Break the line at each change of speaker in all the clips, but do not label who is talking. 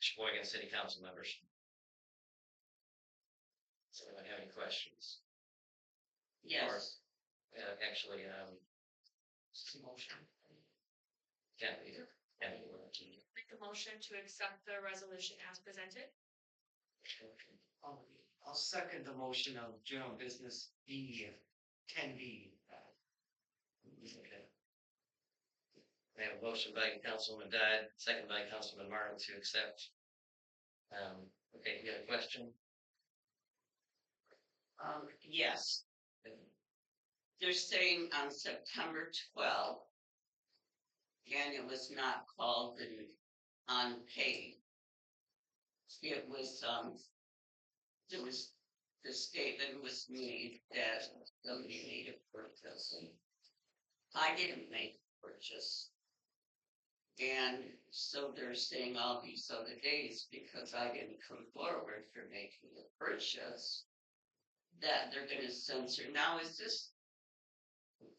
Sheboygan City Council members. Does anyone have any questions?
Yes,
Uh, actually, um. Motion. Can't be, can't be working.
Make a motion to accept the resolution as presented.
I'll, I'll second the motion of general business B, ten B.
Okay. We have a motion by Councilman Dodd, second by Councilman Martin to accept. Um, okay, you got a question?
Um, yes, they're saying on September twelfth. And it was not called and unpaid. It was, um, it was, the statement was made that somebody made a purchase. and I didn't make a purchase. And so they're saying all these other days because I didn't come forward for making a purchase that they're gonna censor. Now, is this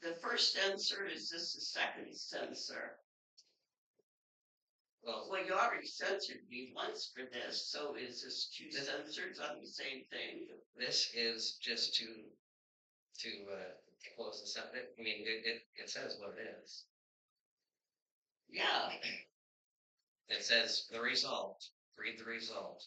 the first censor? Is this the second censor?
Well,
Well, you already censored me once for this, so is this two censors on the same thing?
this is just to, to, uh, to close this up, It- I mean, it, it, it says what it is.
Yeah,
It says the result, read the result.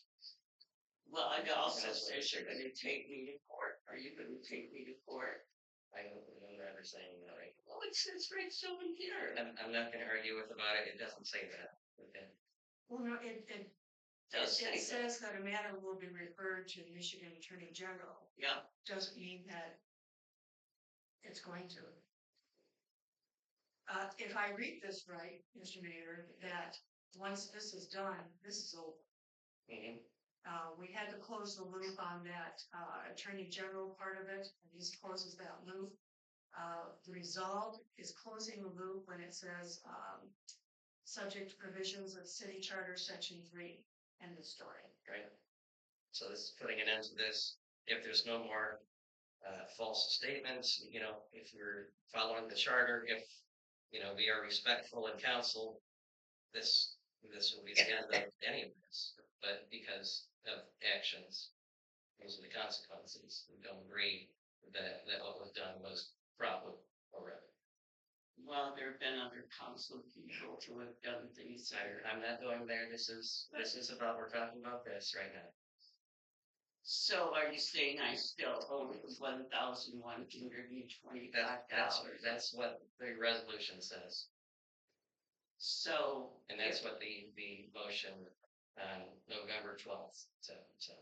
well, it also says you're gonna take me to court. Are you gonna take me to court?
I don't remember ever saying that, right?
Oh, it says right so in here.
I'm, I'm not gonna argue with about it, it doesn't say that, okay?
Well, no, it, it,
Does say, that.
says that a matter will be referred to the Michigan Attorney General,
yeah,
doesn't mean that it's going to. Uh, if I read this right, Mr. Mayor, that once this is done, this is over.
Mhm.
Uh, we had to close the loop on that, uh, attorney general part of it, and this closes that loop. Uh, the resolve is closing the loop when it says, um, subject to provisions of city charter section three, end of story.
Right? So this is putting an end to this, if there's no more, uh, false statements, you know, if you're following the charter, if, you know, we are respectful in council, this, this will be the end of any of this, but because of actions, those are the consequences, we don't agree that, that what was done was proper or right.
well, there have been other council people who have done things
So
higher.
I'm not going there. This is, this is about, we're talking about this right now.
So are you saying I still owe one thousand one hundred and twenty-five
That, that's,
dollars?
that's what the resolution says.
So.
And that's what the, the motion, um, November twelfth, so, so.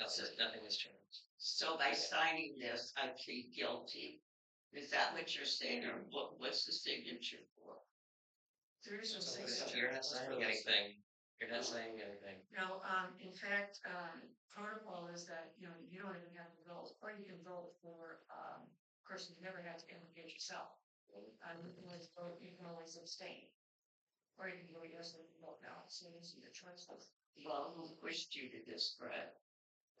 That's it, nothing has changed.
So by signing this, I plead guilty. Is that what you're saying, or what, what's the signature for?
There is no
So
six.
this-
So You're not signing anything. You're not saying anything.
No, um, in fact, um, protocol is that, you know, you don't even have to vote, or you can vote for, um, of course, you never have to implicate yourself. Um, you can always vote, you can always abstain. Or you can go yes and vote no, so these are your choices.
Well, who pushed you to this, Brett?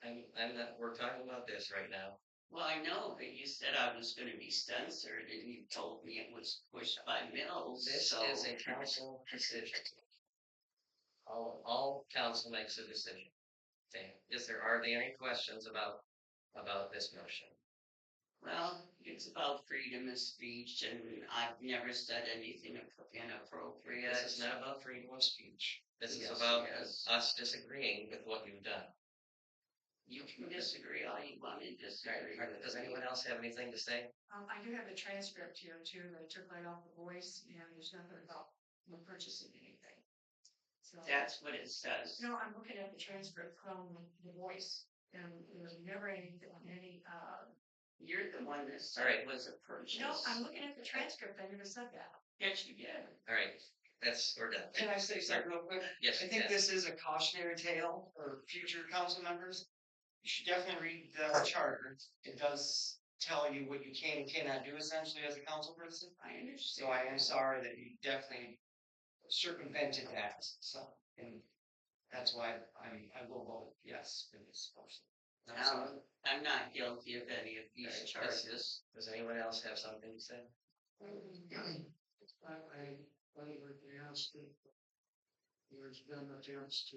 I'm, I'm not, we're talking about this right now.
Well, I know, but you said I was gonna be censored, and you told me it was pushed by Mills,
This
so.
is a council decision. All, all council makes a decision. Okay, is there, are there any questions about, about this motion?
Well, it's about freedom of speech, and I've never said anything inappropriate.
This is not about freedom of speech. This is
Yes,
about uh,
yes.
us disagreeing with what you've done.
You can disagree all you want and disagree.
Or Does anyone else have anything to say?
Um, I do have a transcript here too, that I took right off the voice, and there's nothing about you know, purchasing anything. So,
That's what it says.
no, I'm looking at the transcript from the voice, and there was never anything, any, uh,
You're the one that
All
said
right.
it was a purchase.
no, I'm looking at the transcript, I never said that.
Yes, you did.
All right, that's, we're done.
Can I say something real quick?
Yes,
I think
yes.
this is a cautionary tale for future council members. You should definitely read the charter. It does tell you what you can and cannot do essentially as a council person.
I
So
understand.
I am sorry that you definitely circumvented that, so, and that's why I'm, I will vote yes for this motion.
I'm sorry.
Um, I'm not guilty of any of these
Right, that's-
charges.
Does anyone else have something to say?
I, I, I would be asked if there's been attempts to